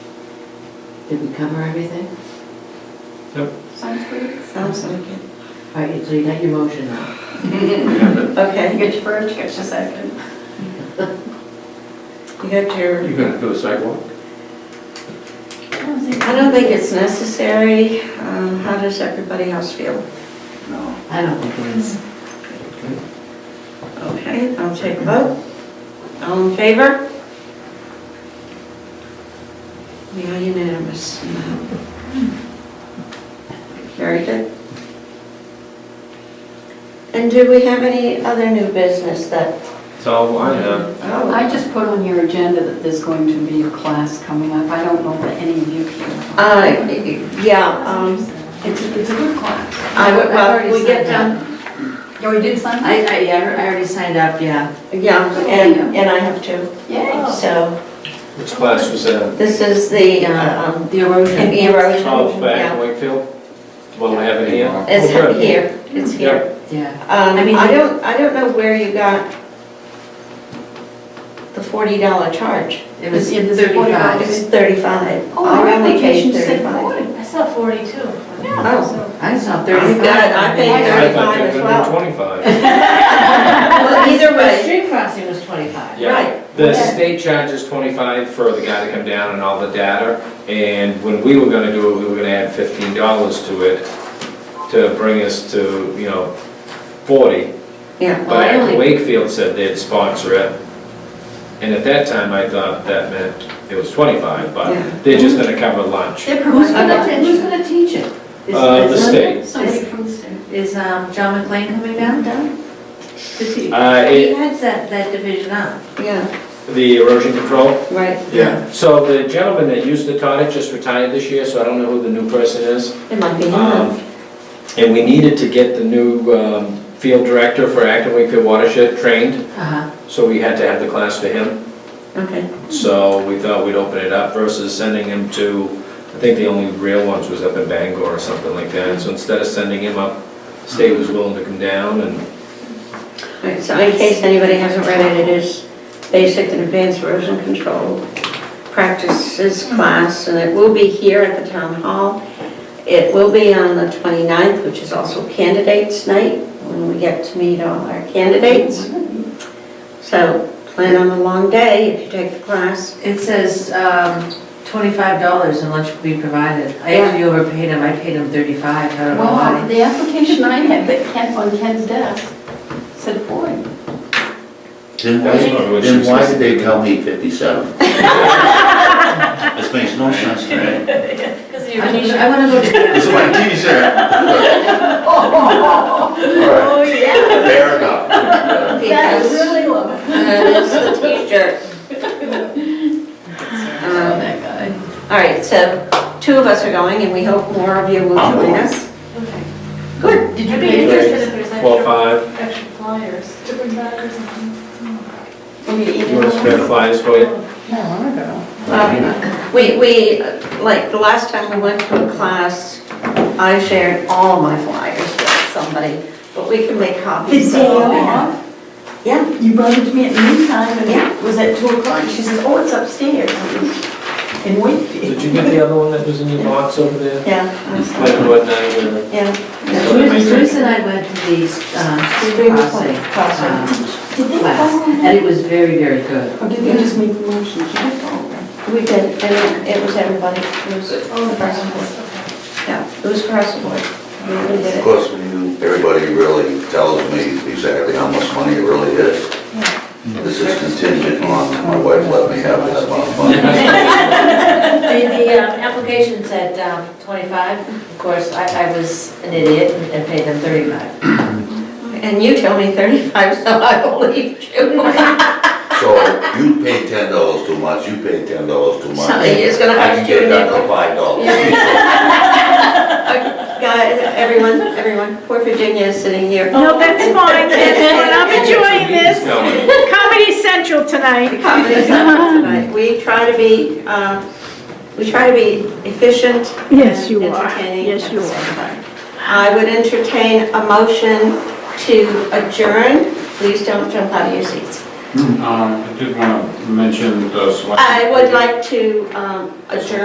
Did we cover everything? Yep. Sounds good. Sounds like it. All right, so you got your motion now. You You Okay, get your first, you get your second. you got your, gonna do a sidewalk? I don't think, I don't think it's necessary. Um, How does everybody else feel? no. I don't think it is. Okay, I'll take a vote. All in favor? We are unanimous. Very good. And do we have any other new business that? So I have. Oh, I just put on your agenda that there's going to be a class coming up. I don't know that any of you can. Uh, yeah, um, It's, it's a good class. I would, well, we get done. down Oh, you did sign? I, I, yeah, I already signed up, yeah. Yeah, and, and I have two. Yay. So Which class was that? this is the, uh, um, The erosion. the erosion. Oh, back in Yeah. Wakefield? Well, I have it here. It's Oh, good. here, it's here. Yeah. Um, I mean- I don't, I don't know where you got the forty dollar charge. It was It was It 35. was thirty-five. Oh, my I only application paid said 35. 40. I saw 42. Oh. So- I saw You've 35. got it. I think Yeah. I thought 35 they as were gonna well. do twenty-five. Well, either The way, street crossing was 25. Yeah, Right. the Yeah. state charges twenty-five for the guy to come down and all the data, and when we were gonna do it, we were gonna add fifteen dollars to it to bring us to, you know, forty. yeah, Well, I But only- Wakefield said they'd sponsor it, and at that time, I thought that meant it was twenty-five, Yeah. but they're just gonna cover lunch. They're Who's providing gonna, who's attention. gonna teach it? Is- Uh, the is- state. Somebody from the state. Is um, John McLean coming down, Doug? Is he- Uh, He it, heads that, that division up. yeah, the erosion control, right. Yeah. so the gentleman that used to taught it just retired this year, so I don't know who the new person is. It might be him. Um, And we needed to get the new um, field director for Acton Wakefield Watershed trained, Uh-huh. so we had to have the class for him. Okay, So we thought we'd open it up versus sending him to, I think the only real ones was up in Bangor or something like that. So instead of sending him up, state was willing to come down and, All right, so in case anybody hasn't read it, it is basic and advanced erosion control practices class, and it will be here at the town hall. It will be on the 29th, which is also candidates night, when we get to meet all our candidates. So plan on a long day if you take the class. It says um, $25 and lunch will be provided. I actually overpaid him, I paid him 35, I don't know Well, why. the application I had that Ken, on Ken's desk said 40. Then why, That's not what she then why said. did they tell me fifty-seven? This makes no sense to me. I mean, I want to go to, This is my t-shirt. All right, oh, yeah. fair enough. That is really low. Oh, Uh, It's the t-shirt. Um, that guy. All right, so two of us are going, and we hope more of you will I'm join going. us. Good. Did you I'd be pay for it? interested if there's well, extra, five, extra flyers to bring back or something. For me to eat you want to it? spare flyers for you? No, I'm not going. Um, We, we, like, the last time we went to a class, I shared all my flyers with somebody, but we can make Did copies. so- day off? Yeah, You brought it to me at noontime and Yeah. it was at two o'clock. She says, oh, it's upstairs in Wakefield. Did you get the other one that was in your box over there? yeah, Like what night with the- yeah. So they made Bruce it- Bruce and I went to the um, street Street crossing crossing. um, class, and it was very, very good. Or did they just make the motion? She didn't go. We did, and it was everybody, it was across Oh, the board. Yeah, it was across the board. We really did Of it. course, everybody really tells me exactly how much money it really is. This is contingent on, my wife let me have this amount of money. The, the um, application said um, 25, of course, I, I was an idiot and and paid them 35. And you tell me 35, so I believe you. So you paid ten dollars too much, you paid ten dollars too much. Somebody is gonna I have can to get it down enable- to five dollars. Guys, everyone, everyone, poor Virginia is sitting here. Oh. No, that's fine, that's fine, I'm enjoying this. No, I- Comedy Central tonight. Comedy Central tonight. We try to be, um, we try to be efficient. and Yes, you are. entertaining Yes, at you the are. same time. I would entertain a motion to adjourn. Please don't jump out of your seats. Hmm, Um, I did want to mention the Swansea. I would like to um, adjourn.